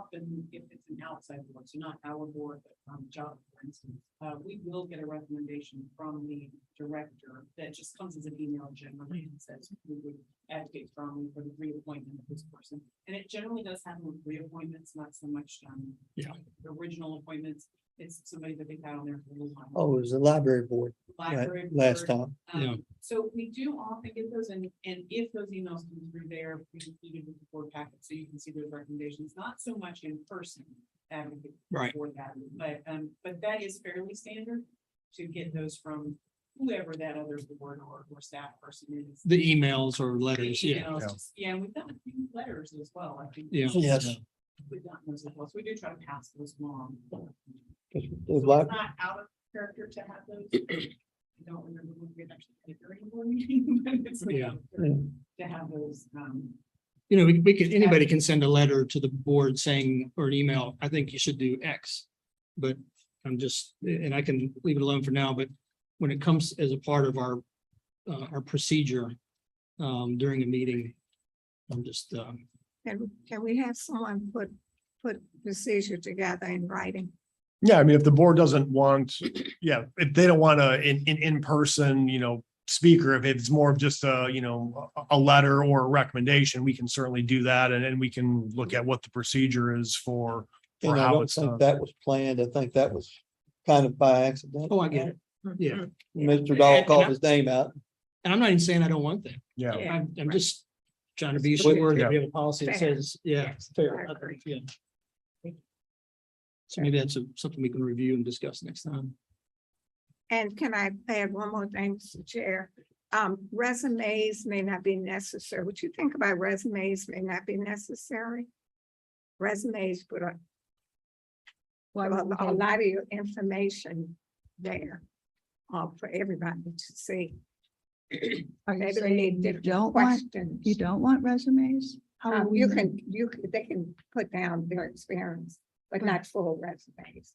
often if it's an outside board, so not our board, but um, job, for instance, uh, we will get a recommendation from the director that just comes as an email generally and says, we would advocate strongly for the reappointment of this person. And it generally does happen with reappointments, not so much, um, Yeah. original appointments. It's somebody that they've had on there for a little while. Oh, it was the library board, right, Library last board, um, time. Yeah. So we do often get those and, and if those emails come through there, we include it with the board packet, so you can see those recommendations, not so much in person. advocate Right. For that, but, um, but that is fairly standard to get those from whoever that other board or, or staff person is. The emails or letters, yeah, Emails, Yeah. just- Yeah, and we've done a few letters as well, I think. yeah. Yes, We've gotten those as well, so we do try to pass those along. So 'cause the It's lib- Not out of character to have those. I don't remember when we actually had a hearing board meeting, but it's like Yeah. to have those, um, You know, we, we can, anybody can send a letter to the board saying, or an email, I think you should do X. But I'm just, and I can leave it alone for now, but when it comes as a part of our, uh, our procedure, um, during a meeting, I'm just, um, Can, can we have someone put, put procedure together in writing? Yeah, I mean, if the board doesn't want, yeah, if they don't want a in in in person, you know, speaker, if it's more of just a, you know, a a letter or a recommendation, we can certainly do that and then we can look at what the procedure is for. for And I how don't it's think done. that was planned. I think that was kind of by accident. oh, I get it. Yeah. Mr. And- Dahl and called I- his name out. And I'm not even saying I don't want that. Yeah, Yeah, I'm, I'm right. just trying to be Fair. sure that we have a policy that Fair. says, yeah, Yes, fair. I I think, yeah. So Sure. maybe that's a- something we can review and discuss next time. And can I add one more thing, Mr. Chair? Um, resumes may not be necessary. What you think about resumes may not be necessary? Resumes put a well, a- a lot of your information there, uh, for everybody to see. Are you Maybe they need saying you different don't want, questions. you don't want resumes? How Um, will we you know? can, you, can- they can put down their experience, but Right. not full resumes.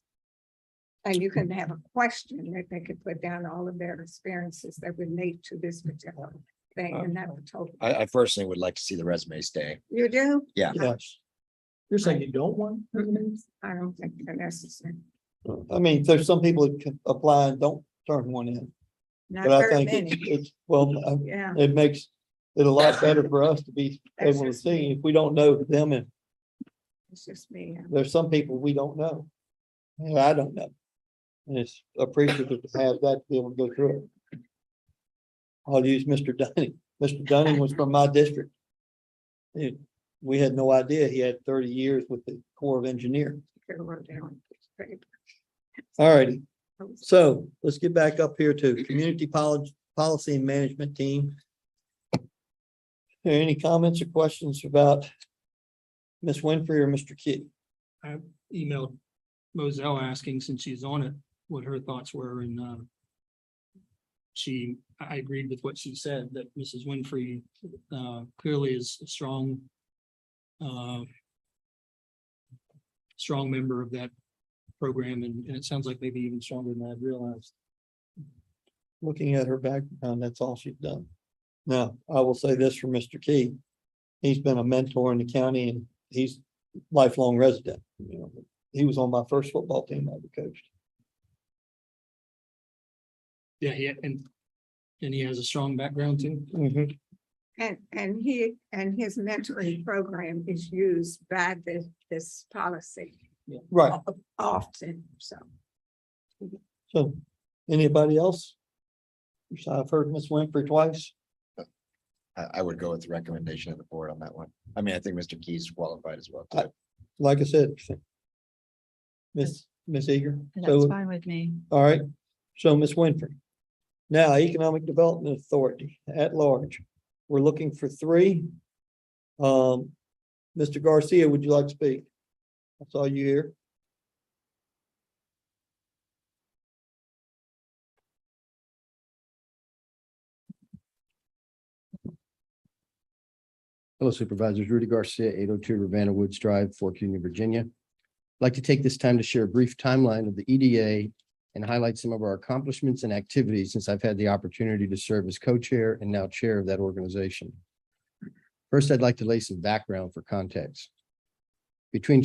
And you can have a question that they could put down all of their experiences that relate to this particular thing and Uh, that would totally. I, I personally would like to see the resume stay. You do? Yeah. Uh-huh. Yes. You're saying you don't want? Mm-hmm. I don't think they're necessary. I mean, there's some people that can apply and don't turn one in, Not but I very think it's, many. it's, well, I- Yeah, it makes it a lot better for us to be That's able to just me. see if we don't know them and it's just me. yeah. there's some people we don't know. And I don't know. And it's appreciative to have that to be able to go through it. I'll use Mr. Dunning. Mr. Dunning was from my district. It- we had no idea he had thirty years with the Corps of Engineers. Could have wrote down a piece of paper. All righty, I was- so let's get back up here to Community Pol- Policy and Management Team. Any comments or questions about Ms. Winfrey or Mr. Kitty? Emailed Moselle asking, since she's on it, what her thoughts were and, uh, she, I I agreed with what she said, that Mrs. Winfrey, uh, clearly is a strong, uh, strong member of that program and, and it sounds like maybe even stronger than I realized. looking at her background, that's all she's done. Now, I will say this for Mr. Key. He's been a mentor in the county and he's lifelong resident, you know. He was on my first football team I ever coached. Yeah, he, and, and he has a strong background too. And, and he, and his mentoring program is used by this, this policy Right, o- often, so. so anybody else? So I've heard Miss Winfrey twice. I, I would go with the recommendation of the board on that one. I mean, I think Mr. Key's qualified as well. I- too. Like I said, Miss, Miss Eager. That's So, fine with me. all right, so Miss Winfrey. Now, Economic Development Authority at large, we're looking for three. Um, Mr. Garcia, would you like to speak? I saw you here. Hello Supervisors, Rudy Garcia, eight oh two Ravenna Woods Drive, Fork Union, Virginia. I'd Like to take this time to share a brief timeline of the E EDA and highlight some of our accomplishments and activities since I've had the opportunity to serve as co-chair and now chair of that organization. First, I'd like to lay some background for context. Between